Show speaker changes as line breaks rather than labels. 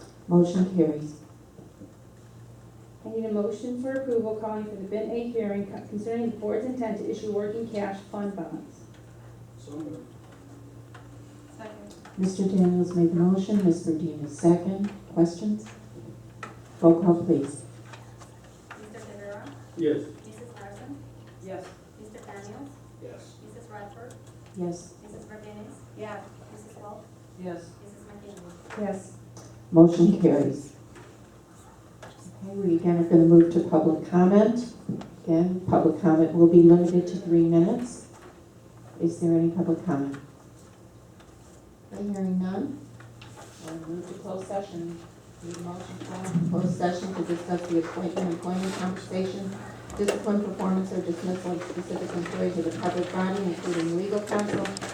Motion carries.
I need a motion for approval calling for the Bin A hearing co- concerning the board's intent to issue working cash fund bonds.
So moved.
Second.
Mr. Daniels made the motion, Ms. Burdine is second. Questions? Roll call, please.
Mr. Rivera,
Yes.
Mrs. Larson,
yes,
Mr. Daniels,
Yes.
Mrs. Radford,
Yes.
Mrs. Martinez. Yes. Mrs. Wolf,
yes,
Mrs. McKinney.
Yes. Motion carries. Okay, we again are going to move to public comment. Again, public comment will be limited to three minutes. Is there any public comment? I'm hearing none. I'll move to closed session. Need a motion to go into closed session to discuss the appointment, employment compensation, discipline, performance, or dismissal of specific employees of the public body, including legal counsel,